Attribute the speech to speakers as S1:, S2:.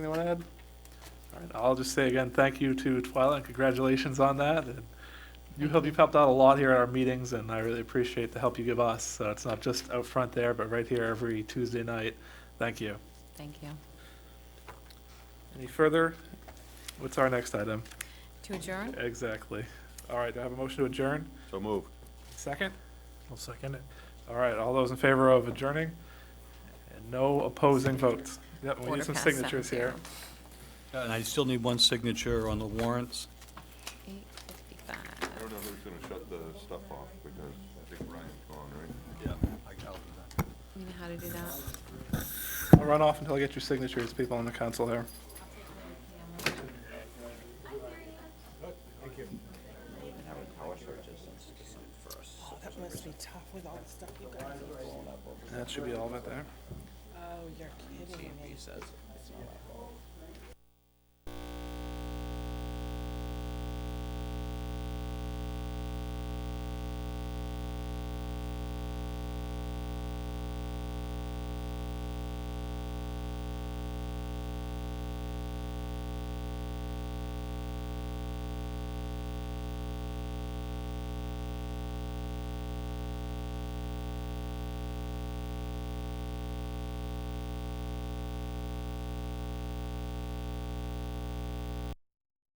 S1: Anyone add? All right, I'll just say again, thank you to Twyla and congratulations on that. And You help, you've helped out a lot here at our meetings and I really appreciate the help you give us. So it's not just out front there, but right here every Tuesday night. Thank you.
S2: Thank you.
S1: Any further? What's our next item?
S2: To adjourn?
S1: Exactly. All right, do I have a motion to adjourn?
S3: So moved.
S1: Second? I'll second it. All right, all those in favor of adjourning? And no opposing votes. Yep, we
S2: Quarter
S1: need some
S2: past seven
S1: signatures here.
S4: And I still need one signature on the warrants.
S2: Eight
S3: I
S2: fifty-five.
S3: don't know who's gonna shut the stuff off, because I think Ryan's gone, right?
S4: Yeah.
S2: You know how to do that?
S1: I'll run off until I get your signatures, people on the council here.
S5: That must be tough with all the stuff you guys.
S1: That should be all of it there.
S5: Oh, you're kidding me.